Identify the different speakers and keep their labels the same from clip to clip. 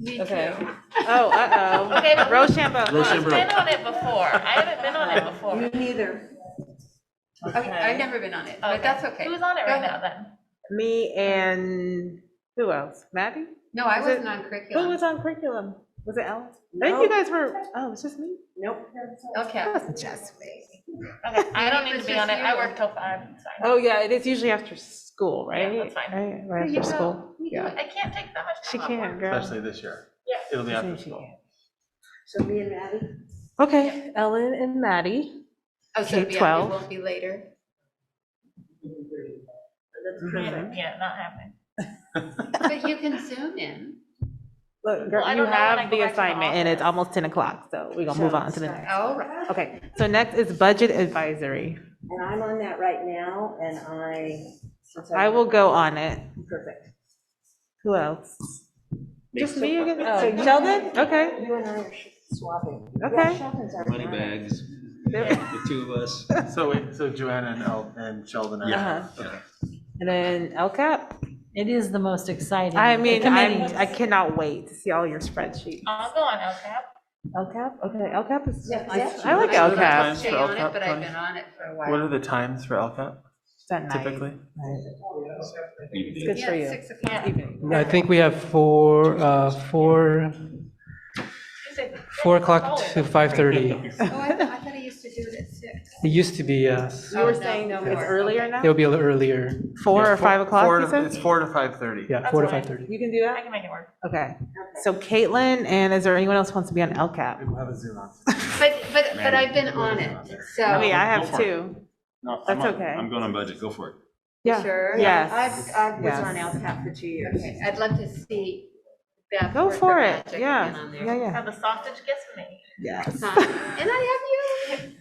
Speaker 1: Me
Speaker 2: Okay.
Speaker 1: too.
Speaker 3: Oh,
Speaker 4: Okay,
Speaker 3: uh-oh.
Speaker 4: but-
Speaker 3: Rochambeau.
Speaker 4: I've been on it before. I haven't been on it before.
Speaker 1: neither. Okay, I've never been on it, but that's okay.
Speaker 4: Who's on it right now then?
Speaker 3: Me and who else? Maddie?
Speaker 1: No, I
Speaker 3: Was it-
Speaker 1: wasn't on
Speaker 3: Who
Speaker 1: curriculum.
Speaker 3: was on curriculum? Was it Alice? I think you guys were, oh, it's just me.
Speaker 1: Okay.
Speaker 3: That wasn't just me.
Speaker 4: Okay, I don't
Speaker 1: Maybe
Speaker 4: need
Speaker 1: it's
Speaker 4: to be on it.
Speaker 1: just
Speaker 4: I
Speaker 1: you.
Speaker 4: work till five. It's fine.
Speaker 3: Oh, yeah, it is usually after school, right?
Speaker 4: that's fine.
Speaker 3: Right, right
Speaker 1: There you
Speaker 3: after
Speaker 1: go.
Speaker 3: school. Yeah.
Speaker 4: I can't take that much
Speaker 3: She
Speaker 4: time off work.
Speaker 3: can, girl.
Speaker 5: especially this year.
Speaker 4: Yeah.
Speaker 5: It'll be after
Speaker 3: She
Speaker 5: school.
Speaker 3: can. Okay, Ellen and Maddie.
Speaker 1: Oh, so
Speaker 3: K
Speaker 1: yeah, it
Speaker 3: 12.
Speaker 1: won't be later.
Speaker 3: Mm-hmm.
Speaker 4: Yeah, yeah, not happening.
Speaker 1: But you can zoom in.
Speaker 3: Look,
Speaker 4: Well,
Speaker 3: girl,
Speaker 4: I
Speaker 3: you
Speaker 4: don't know when I
Speaker 3: have the
Speaker 4: go back to the
Speaker 3: assignment and it's
Speaker 4: office.
Speaker 3: almost 10 o'clock, so we're gonna move on to the next.
Speaker 1: All right.
Speaker 3: Okay, so next is budget advisory.
Speaker 6: And I'm on that right now, and I. since
Speaker 3: I will go on it.
Speaker 6: Perfect.
Speaker 3: Who else? Just me again?
Speaker 6: So
Speaker 3: Oh, Sheldon? Okay.
Speaker 6: You and I are sh- swapping.
Speaker 3: Okay.
Speaker 6: Yeah, Sheldon's our.
Speaker 7: Money bags,
Speaker 3: There-
Speaker 7: the two of us.
Speaker 5: So, wait, so Joanna and El, and Sheldon are.
Speaker 3: Uh-huh.
Speaker 7: Okay.
Speaker 3: And then LCAP?
Speaker 8: It is the most exciting.
Speaker 3: I mean, I'm,
Speaker 8: committee.
Speaker 3: I cannot wait to see all your spreadsheets.
Speaker 4: I'll go on LCAP.
Speaker 3: LCAP? Okay, LCAP is,
Speaker 6: Yeah, 'cause that's
Speaker 3: I like
Speaker 1: I don't
Speaker 3: LCAP.
Speaker 1: stay on it, But I've been on it for a
Speaker 5: What are
Speaker 1: while.
Speaker 5: the times for LCAP
Speaker 3: it's at night.
Speaker 5: typically?
Speaker 3: It's good
Speaker 1: Yeah,
Speaker 3: for you.
Speaker 1: six o'clock. Oh,
Speaker 9: I think we have four, uh, four,
Speaker 4: Tuesday.
Speaker 9: four o'clock to five thirty.
Speaker 1: Oh, I thought, I thought I used to do it at six.
Speaker 9: It used to be, uh,
Speaker 3: You were saying no, it's earlier now?
Speaker 9: it'll be a little earlier.
Speaker 3: Four
Speaker 5: Yeah,
Speaker 3: or five
Speaker 5: four
Speaker 3: o'clock, you
Speaker 5: to- It's
Speaker 3: said?
Speaker 5: four to five thirty.
Speaker 9: Yeah, four to
Speaker 4: That's
Speaker 9: five
Speaker 4: fine.
Speaker 9: thirty.
Speaker 3: You can do
Speaker 4: I
Speaker 3: that?
Speaker 4: can make it work.
Speaker 3: Okay. So Caitlin, and is there anyone else who wants to be on LCAP?
Speaker 5: We'll have a Zoom on.
Speaker 1: But, but, but I've been on it,
Speaker 3: I
Speaker 1: so.
Speaker 3: mean, Oh, I
Speaker 7: Go
Speaker 3: have
Speaker 7: for it.
Speaker 3: two.
Speaker 7: No,
Speaker 3: That's
Speaker 7: I'm on-
Speaker 3: okay.
Speaker 7: I'm going on budget, go for it.
Speaker 3: Yeah.
Speaker 1: Sure.
Speaker 3: Yes.
Speaker 6: I, I was
Speaker 3: Yes.
Speaker 6: on LCAP for two years.
Speaker 1: Okay, I'd love to see Beth.
Speaker 3: Go
Speaker 1: work her
Speaker 3: for it.
Speaker 1: magic again
Speaker 3: Yeah.
Speaker 1: on there.
Speaker 3: Yeah, yeah.
Speaker 4: Now the sausage gets me.
Speaker 3: Yes.
Speaker 1: Huh. And I have you.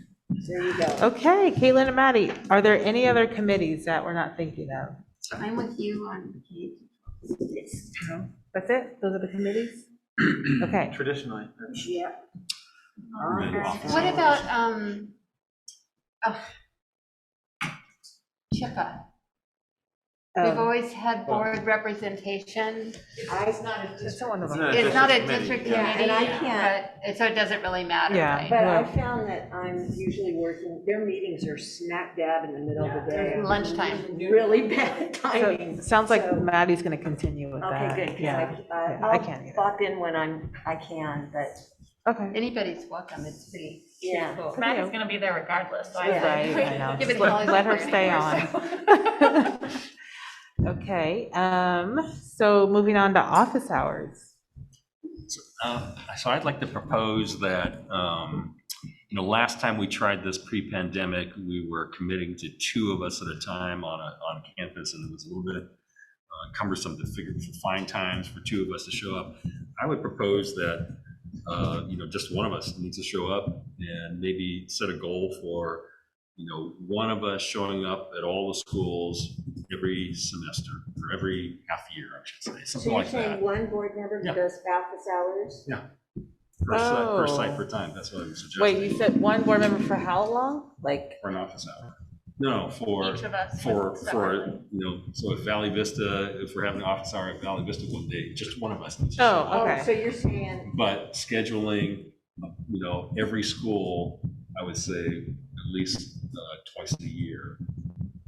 Speaker 6: There you go.
Speaker 3: Okay, Caitlin and Maddie, are there any other committees that we're not thinking of?
Speaker 1: I'm with you on K
Speaker 3: That's it? Those are the committees? Okay.
Speaker 5: Traditionally. that's-
Speaker 6: Yeah.
Speaker 7: Then off.
Speaker 1: What about, um, oh, CHIPA?
Speaker 6: Oh.
Speaker 1: We've
Speaker 3: um,
Speaker 1: always had board representation.
Speaker 6: I, not a
Speaker 3: That's one of
Speaker 5: Isn't
Speaker 3: them.
Speaker 5: it
Speaker 1: It's not a
Speaker 5: committee?
Speaker 1: district
Speaker 6: Yeah,
Speaker 1: committee,
Speaker 6: and I can't-
Speaker 1: but, it- so it doesn't really matter,
Speaker 3: Yeah.
Speaker 1: right?
Speaker 6: but I
Speaker 3: Wow.
Speaker 6: found that I'm usually working, their meetings are smack dab in the middle of the day.
Speaker 1: Lunchtime.
Speaker 6: Really bad
Speaker 3: So
Speaker 6: timing.
Speaker 3: sounds like
Speaker 6: So-
Speaker 3: Maddie's going to continue with that.
Speaker 6: Okay, good,
Speaker 3: Yeah.
Speaker 6: because I, I-
Speaker 3: yeah, I can't
Speaker 6: I'll
Speaker 3: either.
Speaker 6: pop in when I'm, I can, but,
Speaker 3: Okay.
Speaker 1: Anybody's welcome, it's pretty, pretty
Speaker 6: yeah.
Speaker 1: cool.
Speaker 4: Matt is gonna be there regardless, so I.
Speaker 6: Yeah.
Speaker 3: Right, I know.
Speaker 1: Yeah,
Speaker 3: Just
Speaker 1: but
Speaker 3: let
Speaker 1: it's
Speaker 3: let her
Speaker 1: always
Speaker 3: stay on. Okay, um, so moving on to office hours.
Speaker 7: Uh, So I'd like to propose that, um, you know, last time we tried this pre-pandemic, we were committing to two of us at a time on a, on campus, and it was a little bit uh, cumbersome to figure, to find times for two of us to show up. I would propose that, uh, you know, just one of us needs to show up and maybe set a goal for, you know, one of us showing up at all the schools every semester, or every half year, I should
Speaker 6: So
Speaker 7: say, something
Speaker 6: you're
Speaker 7: like that.
Speaker 6: saying one board member
Speaker 7: Yeah.
Speaker 6: who goes office hours?
Speaker 7: Per site, per site,
Speaker 3: Oh.
Speaker 7: per time, that's what I'm suggesting.
Speaker 3: Wait, you said one board member for how long? Like,
Speaker 7: For an office hour. No, for,
Speaker 4: Each of us.
Speaker 7: for,
Speaker 4: separately.
Speaker 7: for, you know, so if Valley Vista, if we're having an office hour at Valley Vista one day, just one of us. needs to show
Speaker 3: Oh,
Speaker 7: up.
Speaker 3: Okay.
Speaker 6: So you're saying,
Speaker 7: But scheduling, you know, every school, I would say at least uh, twice a year.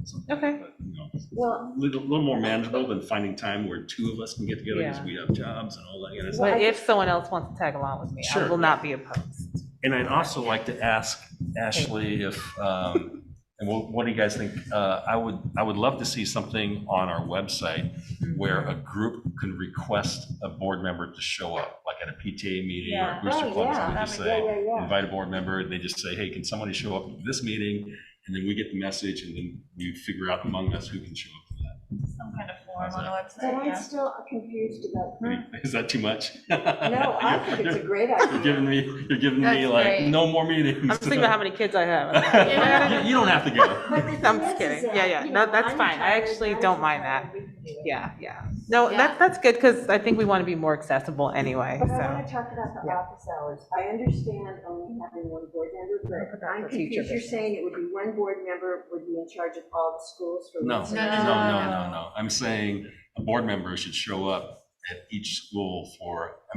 Speaker 7: something like
Speaker 3: Okay.
Speaker 7: that, you know.
Speaker 6: well,
Speaker 7: Little, little more manageable than finding time where two of us can get together because
Speaker 3: Yeah.
Speaker 7: we have jobs and all that kind of stuff.
Speaker 3: but if someone else wants to tag along with me, I
Speaker 7: Sure.
Speaker 3: will not be opposed.
Speaker 7: And I'd also like to ask Ashley if, um, and what, what do you guys think? Uh, I would, I would love to see something on our website where a group can request a board member to show up, like at a PTA meeting or a
Speaker 4: Yeah.
Speaker 7: booster
Speaker 6: Oh,
Speaker 7: club.
Speaker 6: yeah.
Speaker 7: so we just
Speaker 6: yeah,
Speaker 7: say,
Speaker 6: yeah, yeah.
Speaker 7: invite a board member, and they just say, hey, can somebody show up to this meeting? And then we get the message, and then we figure out among us who can show up for that.
Speaker 4: Some kind of form on the
Speaker 6: But
Speaker 4: website,
Speaker 6: I'm
Speaker 4: yeah.
Speaker 6: still confused about,
Speaker 7: Is that too much?
Speaker 6: Hmm. no, I think it's a great
Speaker 7: You're
Speaker 6: idea.
Speaker 7: giving me, you're giving me
Speaker 1: That's
Speaker 7: like,
Speaker 1: great.
Speaker 7: no more meetings.
Speaker 3: I'm just thinking about how many kids I have. I'm like,
Speaker 7: You you don't have to go.
Speaker 6: But the
Speaker 3: I'm
Speaker 6: thing
Speaker 3: just
Speaker 6: is, is
Speaker 3: kidding.
Speaker 6: that,
Speaker 3: Yeah, yeah.
Speaker 6: you
Speaker 3: No,
Speaker 6: know,
Speaker 3: that's
Speaker 6: I'm
Speaker 3: fine. I
Speaker 6: tired,
Speaker 3: actually
Speaker 6: guys
Speaker 3: don't
Speaker 6: are
Speaker 3: mind
Speaker 6: tired,
Speaker 3: that.
Speaker 6: we can do it.
Speaker 3: Yeah, yeah. No,
Speaker 1: Yeah.
Speaker 3: that, that's good because I think we want to be more accessible anyway,
Speaker 6: But I want
Speaker 3: so.
Speaker 6: to talk about the
Speaker 3: yeah.
Speaker 6: office hours. I understand only having one board member, but I'm
Speaker 3: for future
Speaker 6: confused. You're saying it would be one board member would be in charge of all the schools for.
Speaker 7: No,
Speaker 6: one
Speaker 7: no,
Speaker 6: semester?
Speaker 7: no, no, no, no. I'm saying a board member should show up at each school for, I mean,